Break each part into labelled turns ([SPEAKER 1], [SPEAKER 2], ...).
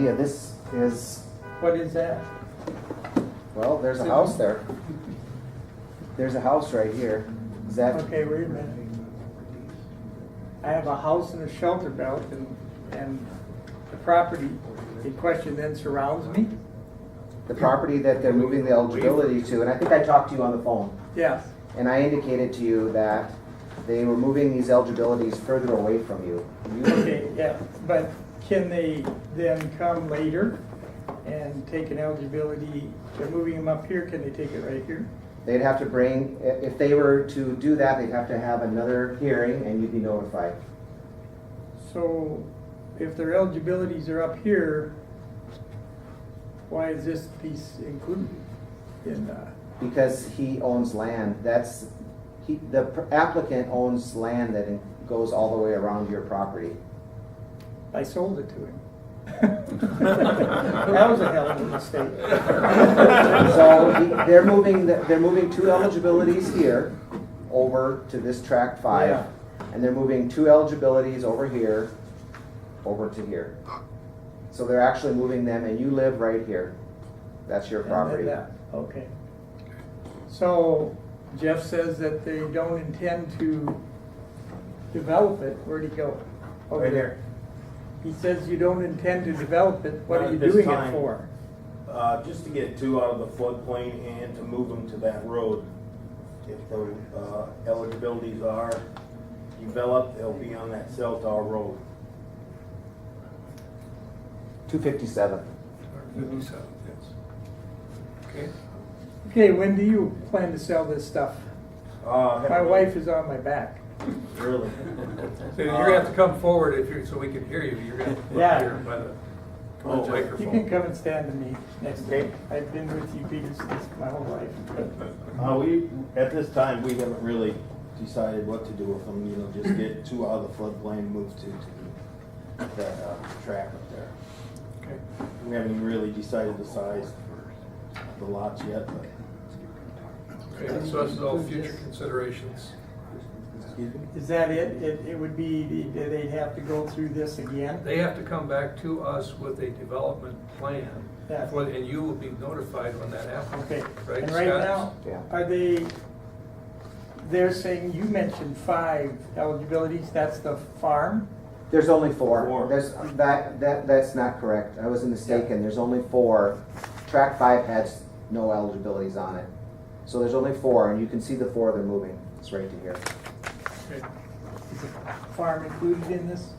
[SPEAKER 1] Yeah, this is,
[SPEAKER 2] What is that?
[SPEAKER 1] well, there's a house there. There's a house right here. Is that,
[SPEAKER 2] Okay, wait a minute. I have a house in a shelter belt and, and the property in question then surrounds me?
[SPEAKER 1] the property that they're moving the eligibility to, and I think I talked to you on the phone,
[SPEAKER 2] Yes,
[SPEAKER 1] and I indicated to you that they were moving these eligibilities further away from you. You,
[SPEAKER 2] okay, yeah, but can they then come later and take an eligibility, they're moving them up here, can they take it right here?
[SPEAKER 1] they'd have to bring, i- if they were to do that, they'd have to have another hearing and you'd be notified.
[SPEAKER 2] So if their eligibilities are up here, why is this piece included in, uh,
[SPEAKER 1] Because he owns land, that's, he, the applicant owns land that goes all the way around your property.
[SPEAKER 2] I sold it to him. That was a hell of a mistake.
[SPEAKER 1] So he- they're moving, the- they're moving two eligibilities here over to this track five.
[SPEAKER 2] Yeah.
[SPEAKER 1] And they're moving two eligibilities over here, over to here. So they're actually moving them and you live right here. That's your
[SPEAKER 2] And then
[SPEAKER 1] property.
[SPEAKER 2] that- Okay. So Jeff says that they don't intend to develop it. Where'd he go? Over
[SPEAKER 3] Right
[SPEAKER 2] there. He says you don't intend to develop it. What
[SPEAKER 3] Not
[SPEAKER 2] are you
[SPEAKER 3] at this
[SPEAKER 2] doing it
[SPEAKER 3] time.
[SPEAKER 2] for?
[SPEAKER 3] Uh, just to get two out of the floodplain and to move them to that road. If the uh, eligibilities are developed, they'll be on that cell tower road.
[SPEAKER 1] Two fifty-seven.
[SPEAKER 3] Uh,
[SPEAKER 4] Fifty-seven, yes. Okay.
[SPEAKER 2] Okay, when do you plan to sell this stuff?
[SPEAKER 3] Uh,
[SPEAKER 2] My wife is on my back.
[SPEAKER 3] Really?
[SPEAKER 4] So you're gonna have to come forward if you're, so we can hear you, you're gonna have to come
[SPEAKER 2] Yeah.
[SPEAKER 4] up here by the, by
[SPEAKER 3] Oh,
[SPEAKER 4] the
[SPEAKER 3] wait.
[SPEAKER 2] You can
[SPEAKER 4] microphone.
[SPEAKER 2] come and stand to me next day. I've been with you, Peter, since my whole life.
[SPEAKER 3] Uh, we, at this time, we haven't really decided what to do with them, you know, just get two out of the floodplain, move two to the- that uh, track up there.
[SPEAKER 2] Okay.
[SPEAKER 3] We haven't really decided the size of the lots yet, but,
[SPEAKER 4] Okay, so this is all future considerations.
[SPEAKER 3] excuse me?
[SPEAKER 2] Is that it? It, it would be, the- they'd have to go through this again?
[SPEAKER 4] They have to come back to us with a development plan,
[SPEAKER 2] Yeah.
[SPEAKER 4] for- and you will be notified when that happens.
[SPEAKER 2] Okay,
[SPEAKER 4] Right,
[SPEAKER 2] and right now,
[SPEAKER 4] Scott?
[SPEAKER 1] Yeah.
[SPEAKER 2] are they, they're saying, you mentioned five eligibilities, that's the farm?
[SPEAKER 1] There's only four.
[SPEAKER 3] Four.
[SPEAKER 1] There's, that, that, that's not correct. I was mistaken. There's only four. Track five has no eligibilities on it. So there's only four and you can see the four they're moving. It's right to here.
[SPEAKER 2] Is the Farm included in this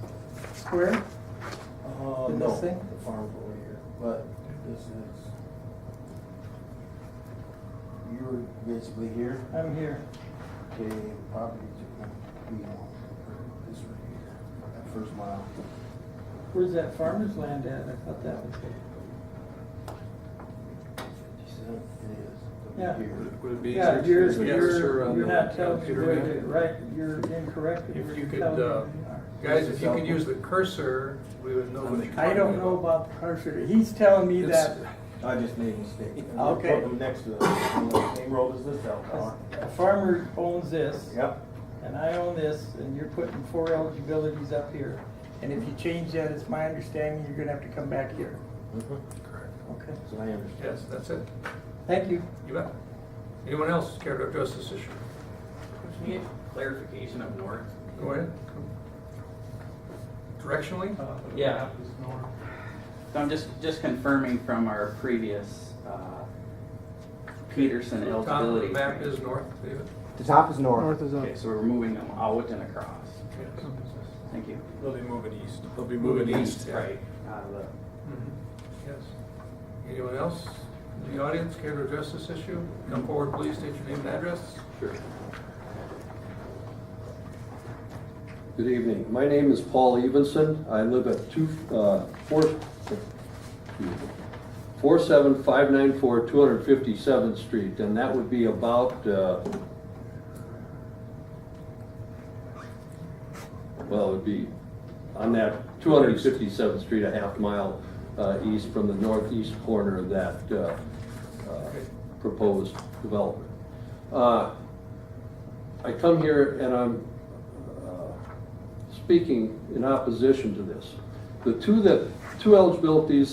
[SPEAKER 2] square?
[SPEAKER 3] Uh,
[SPEAKER 2] In
[SPEAKER 3] no,
[SPEAKER 2] this thing?
[SPEAKER 3] The farm's over here, but this is. You were basically here,
[SPEAKER 2] I'm here.
[SPEAKER 3] okay, the property to be on this right here, that first mile.
[SPEAKER 2] Where's that farmer's land at? I thought that was it.
[SPEAKER 3] Fifty-seven, it is.
[SPEAKER 2] Yeah.
[SPEAKER 3] Here.
[SPEAKER 4] Would it be easier
[SPEAKER 2] Yeah,
[SPEAKER 4] to
[SPEAKER 2] you're,
[SPEAKER 4] get
[SPEAKER 2] you're,
[SPEAKER 4] her on
[SPEAKER 2] you're
[SPEAKER 4] the
[SPEAKER 2] not telling,
[SPEAKER 4] computer
[SPEAKER 2] you're
[SPEAKER 4] map?
[SPEAKER 2] right, you're incorrect.
[SPEAKER 4] If
[SPEAKER 2] You're
[SPEAKER 4] you could,
[SPEAKER 2] telling me
[SPEAKER 4] uh,
[SPEAKER 2] you are.
[SPEAKER 4] Guys, if you could use the cursor, we would know what you're
[SPEAKER 2] I
[SPEAKER 4] talking
[SPEAKER 2] don't know about the cursor. He's telling me
[SPEAKER 4] It's-
[SPEAKER 2] that
[SPEAKER 3] I just made a mistake.
[SPEAKER 2] Okay.
[SPEAKER 3] Put them Next to the, on the same road as this cell tower.
[SPEAKER 2] a farmer owns this.
[SPEAKER 3] Yep,
[SPEAKER 2] and I own this, and you're putting four eligibilities up here. And if you change that, it's my understanding, you're gonna have to come back here.
[SPEAKER 4] Correct.
[SPEAKER 2] Okay.
[SPEAKER 3] so I understand.
[SPEAKER 4] Yes, that's it,
[SPEAKER 2] Thank you.
[SPEAKER 4] you bet. Anyone else care to address this issue?
[SPEAKER 5] Can you get clarification up north?
[SPEAKER 4] Go ahead. Directionally?
[SPEAKER 5] Yeah. So I'm just, just confirming from our previous uh, Peterson
[SPEAKER 4] Top of the
[SPEAKER 5] eligibility.
[SPEAKER 4] map is north, David.
[SPEAKER 1] The top is north.
[SPEAKER 5] Okay, so we're moving them out and across. Thank you.
[SPEAKER 4] They'll be moving east. They'll be yeah.
[SPEAKER 5] Right. out of the-
[SPEAKER 4] Mhm. Yes. Anyone else in the audience care to address this issue? Come forward, please, state your name and address.
[SPEAKER 6] Good evening. My name is Paul Evenson. I live at two, uh, four, four seven five nine four two hundred fifty-seventh Street, and that would be about, uh, well, it would be on that two hundred fifty-seventh Street, a half mile, uh, east from the northeast corner of that, uh, uh, proposed development. Uh, I come here and I'm uh, speaking in opposition to this. The two that, two eligibilities